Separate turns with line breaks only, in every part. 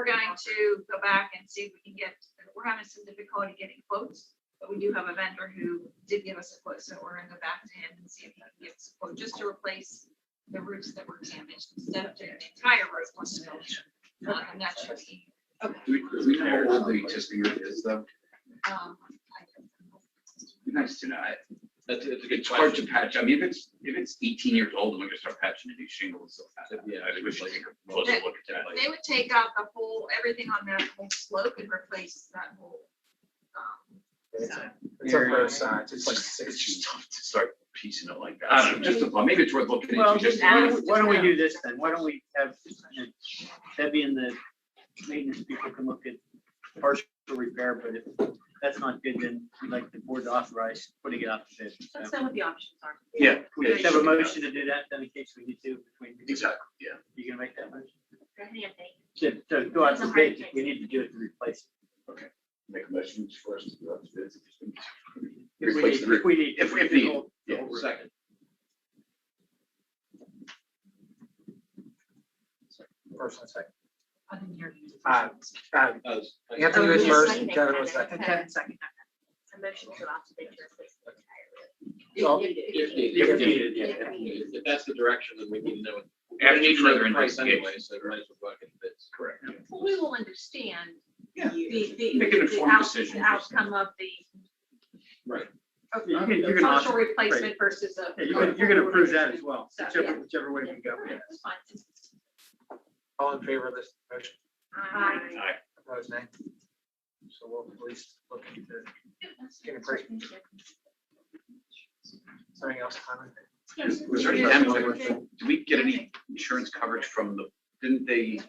going to go back and see if we can get, we're having some difficulty getting quotes, but we do have a vendor who did give us a quote, so we're gonna go back to him and see if he can give us a quote, just to replace the roofs that were damaged, instead of doing the entire roof, let's go. Uh, And that should be.
Do we, do we know how old the existing roof is though?
um, I don't know.
Be Nice to know. I-
That's, that's a good
It's hard to
question.
patch. I mean, if it's, if it's eighteen years old, we're gonna start patching the new shingles. so I-
Yeah.
I think we should take a closer look at that.
They would take out the whole, everything on that whole slope and replace that whole. um, side.
It's on both sides, it's like
It's
six.
just tough to start piecing it like that. I don't know, just, a thought. maybe it's worth looking
Well,
into
just
just.
why
ask,
don't- why don't we
just
do this then? Why don't we have Debbie and the maintenance people can look at partial repair, but if that's not good, then we'd like the board to authorize putting it out to bid.
Let's
So
know what the options are.
Yeah.
We just have a motion to do that, then in case we need to between.
Exactly, yeah.
You gonna make that motion?
Any update?
To, to go out to bid, if we need to do it to replace.
Make a motion for us to go out to bid.
it. If we
Replace
need-
the roof.
If we need.
If- if needed.
the whole- the whole roof.
Second.
First and second.
I didn't hear you.
Uh, Uh,
Uh, s-
Anthony was
Oh,
first,
second,
Kevin was
Kevin.
second.
Kevin second. A motion to allow to bid your replacement
So-
entirely.
If
If
needed,
If
if
needed,
needed,
yeah.
If if that's the direction, then we need to know.
After
We need to know the
further
price
investigation.
Anyway, so we might as well go out and get bids.
Correct.
Well, we will understand the,
Yeah.
the,
Make an
the
informed
out-
decision.
the outcome of the
Right.
You can- You're gonna,
partial
author-
replacement versus a.
yeah, you're gonna, you're gonna approve that as well, whichever, whichever way
Yeah,
we go.
that's fine.
all in favor of this motion,
Aye.
opposed nay? So we'll at least look into Give it something else. Tyler?
Was was there any damage? Did we get any insurance coverage from the, didn't they,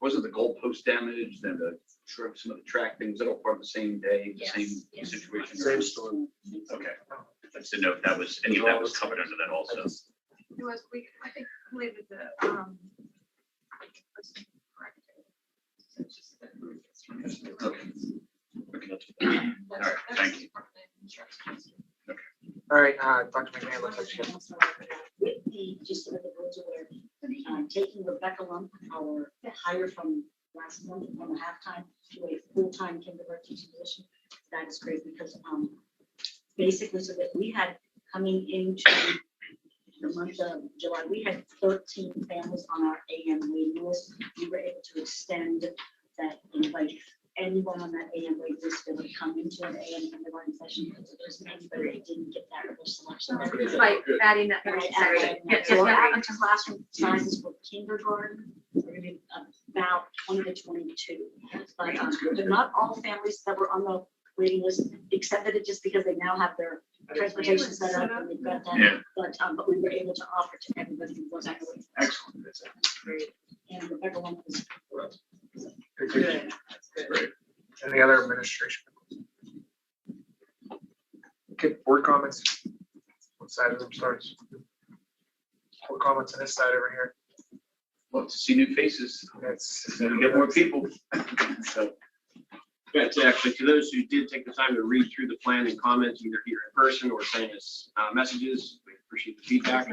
wasn't the goalpost damaged and the, tr- some of the track things, that all part of the same day, the
Yes,
same
yes.
situation?
story.
Okay. I just didn't know if that was, any of that was covered under that also.
It was, we, I think, believe it, the, um. So it's just the-
Okay. Okay, that's-
All
right, thank you.
All right, uh, Dr. McMahon looks like she has.
with the, just so that the board's aware, uh, taking Rebecca Lump, our hire from last month from a halftime to a full-time kindergarten teaching position. That is great because, um, basically so that we had coming into the month of July, we had thirteen families on our AM waiting list. We were able to extend that invite. Anyone on that AM waiting list that would come into an AM kindergarten session, because there's anybody that didn't get that first selection.
It's like adding that.
Right,
first
at
section.
that
Yeah,
point. So
yeah,
we're
yeah.
average classroom sizes for kindergarten, we're gonna be about twenty to twenty-two. But um, but not all families that were on the waiting list accepted it just because they now have their transportation set up and they've got that.
Yeah,
But, um, but we were able to offer to everybody who was on the waiting list.
excellent. That's
And Rebecca Lump was
Any
great.
other administration? Okay, board comments. What side of them starts? Board comments on this side over here.
Love to see new faces,
That's.
and get more people. So,
That's actually, to those who did take the time to read through the plan and comments, either here in person or sending us uh, messages, we appreciate the feedback.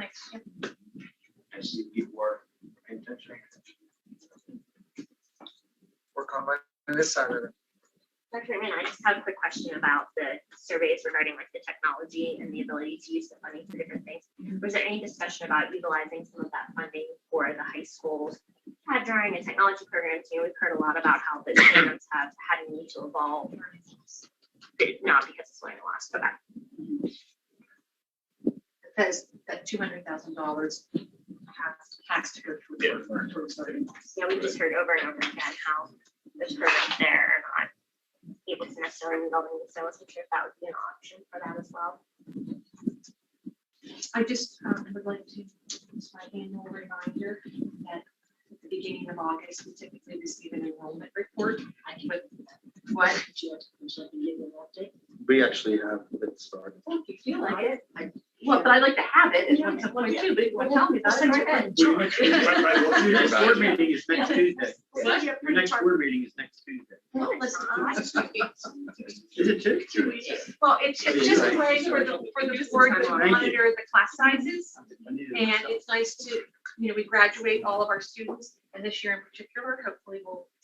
I see people are paying attention.
Board comment on this side of it.
Dr. Raymond, I just have a quick question about the surveys regarding like the technology and the ability to use the funding for different things. Was there any discussion about utilizing some of that funding for the high schools uh, during the technology programs? You know, we've heard a lot about how the programs have had a need to evolve. Not because it's going to last, but that
Because that two hundred thousand dollars has, has to go through. towards voting.
you know, we've just heard over and over again how there's programs there are not able to necessarily meet all the needs. So I wasn't sure if that would be an option for that as well.
I just um, would like to, use my annual reminder that at the beginning of August, we typically receive an enrollment report. I can put what?
We actually have it started.
You feel like it?
Well,
Well, but I like to have it,
it's
it's
one-
one
it's
point two, but well, tell me about it right then.
Right, right, we'll
Your
hear
next
about
board
it.
meeting is next Tuesday.
What?
Your next board meeting is next Tuesday. Is it Tuesday?
Well, it's, it's just a way for the, for the board to
Thank you.
monitor the class sizes.
I needed
And
myself.
it's nice to, you know, we graduate all of our students, and this year in particular, hopefully we'll